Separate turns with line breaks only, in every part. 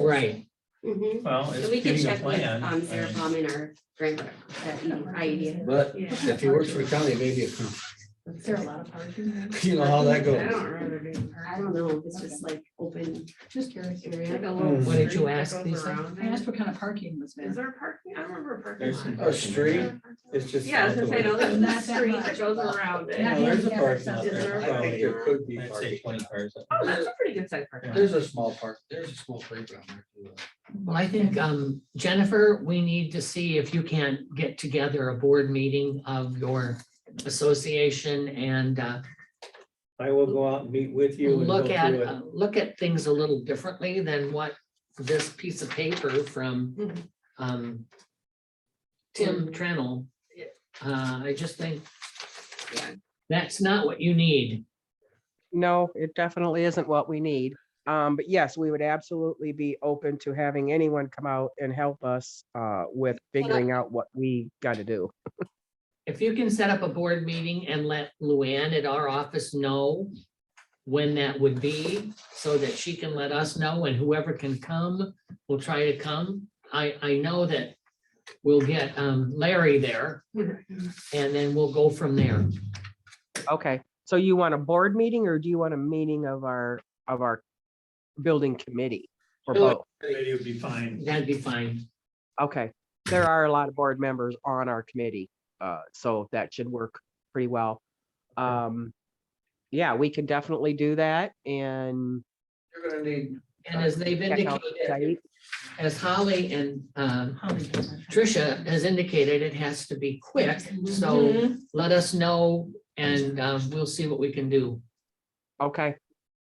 Right,
Mhm.
Well,
And
it's
we can
getting a
check with,
plan.
um,
I
Sarah
mean,
Palm in our E grant rep, that you- idea.
but
Yeah.
if he works for the county, maybe, it comes.
Is there a lot of parking?
you know how that
I
goes.
don't remember being
I
parked.
don't know, it's just like open
Just curious.
area, like a
Mm.
little.
What
did you
street that
ask
goes
Lisa?
around
I
it.
asked what kind of parking was
Is
there.
there parking? I remember a
There's
parking
some
lot.
A street, it's just.
Yeah, I was gonna say, no, there's
Not
a
that
street
much.
that goes around
Yeah.
it.
Well, There's a parking lot
Is
there.
there
I think there could be
I'd say
parking.
twenty cars. up.
Oh, that's a pretty good sized parking. lot.
There's a small park, there's a small playground there.
Well, I think, um, Jennifer, we need to see if you can get together a board meeting of your association and, uh,
I will go out and meet with you. and go
look at,
through it.
uh, look at things a little differently than what this piece of paper from,
Mhm.
um, Tim Trennell. Uh, I just think
Yeah.
that's not what you need.
No, it definitely isn't what we need. Um, but yes, we would absolutely be open to having anyone come out and help us uh, with figuring out what we got to do.
If you can set up a board meeting and let Luann at our office know when that would be, so that she can let us know and whoever can come will try to come. I, I know that we'll get um, Larry there and then we'll go from there.
Okay, so you want a board meeting or do you want a meeting of our of our building committee or
Sure.
both?
Maybe it would be fine.
That'd be fine.
Okay, there are a lot of board members on our committee, uh, so that should work pretty well. Um, yeah, we can definitely do that and
You're gonna need,
And as they've
check out
indicated,
site.
as Holly and um,
Holly does that.
Tricia has indicated, it has to be quick. So let us know and uh, we'll see what we can do.
Okay.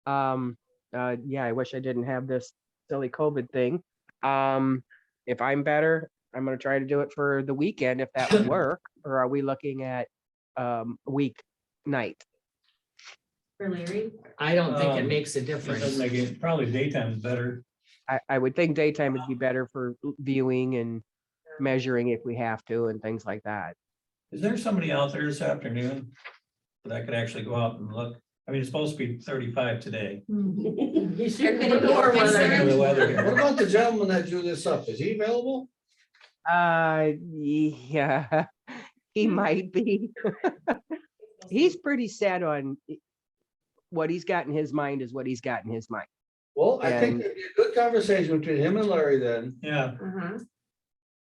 Um, uh, yeah, I wish I didn't have this silly COVID thing. Um, if I'm better, I'm gonna try to do it for the weekend if that would work, or are we looking at, um, week night?
For Larry,
I don't think it
Um,
makes a
It doesn't
difference.
make it- Probably daytime is better.
I, I would think daytime would be better for viewing and measuring if we have to and things like that.
Is there somebody out there this afternoon that I could actually go out and look? I mean, it's supposed to be thirty-five today.
They're gonna
Look
be
at
a
the
mixer.
weather
what
here.
about the gentleman that drew this up? Is he available?
Uh, yeah, he might be. He's pretty set on i- what he's got in his mind is what he's got in his mind.
Well, I think
And-
there'd be a good conversation between him and Larry then.
Yeah.
uh-huh,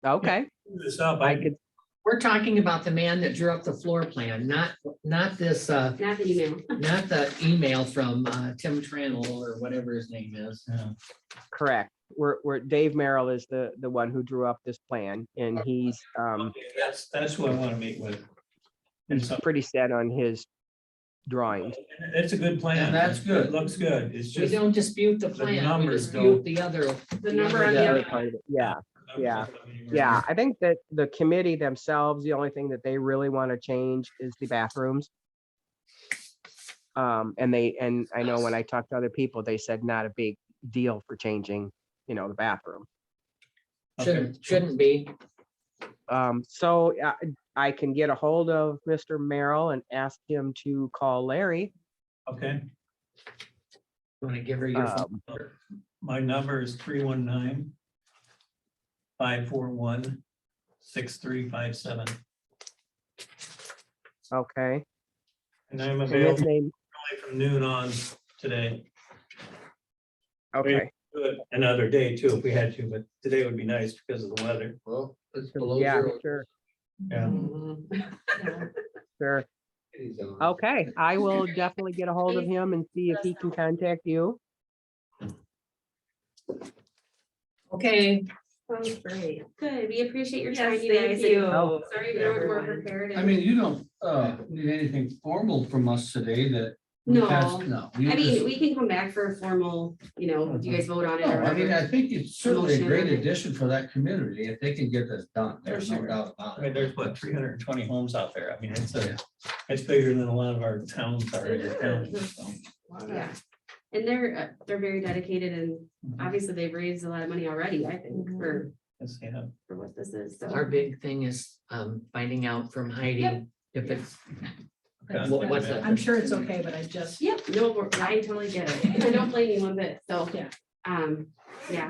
Okay,
do This up,
I
I could,
could,
We're talking about the man that drew up the floor plan, not, not this, uh,
not the email.
not the email from uh, Tim Trannell or whatever his name is.
yeah,
correct. We're, we're, Dave Merrill is the, the one who drew up this plan and he's, um,
that's, that's who I want to meet with. And so,
pretty set on his drawings.
it's a good plan.
And that's good.
It Looks good. It's
We
just.
don't dispute the
the
plan, we
numbers
dispute
don't-
the other.
The number
other
on
The
the
other
other.
part of it, Yeah, yeah, yeah. I think that the committee themselves, the only thing that they really want to change is the bathrooms. Um, and they, and I know when I talked to other people, they said not a big deal for changing, you know, the bathroom.
Okay.
Shouldn't, shouldn't be.
Um, so I, I can get a hold of Mr. Merrill and ask him to call Larry.
Okay,
Want to give her
Uh,
your, phone.
Um,
my number is three one nine five four one six three five seven,
okay,
and I'm
and his
available
name,
probably from noon on today.
okay,
Do it Another day too, if we had to, but today would be nice because of the weather.
Well, it's below
yeah,
zero.
sure,
Yeah.
Mm-hmm.
sure.
He's on.
Okay, I will definitely get a hold of him and see if he can contact you.
okay,
Sounds great. Good, we appreciate your time,
Yes,
you guys.
thank
and Sorry,
you.
we weren't more
Everyone.
prepared.
I mean, you don't, uh, need anything formal from us today that. we passed-
No.
No. you
I
just-
mean, we can come back for a formal, you know, do you guys vote on it
No,
or
I mean, I
whatever?
think it's certainly a great
Motion.
addition for that community if they can get this done. There's no
Sure.
doubt about
I mean,
it.
there's what, three hundred and twenty homes out there. I mean, it's a, it's bigger than a lot of our towns are. in the county, so.
Yeah. And they're, uh, they're very dedicated and obviously they've raised a lot of money already, I think, for,
Let's see how-
for what this is.
our
So
big thing is um, finding out from Heidi if it's,
Okay.
What- what's that?
I'm sure it's okay, but I just.
Yep, no, I totally get it. I don't blame you one bit. So,
Yeah.
um, yeah,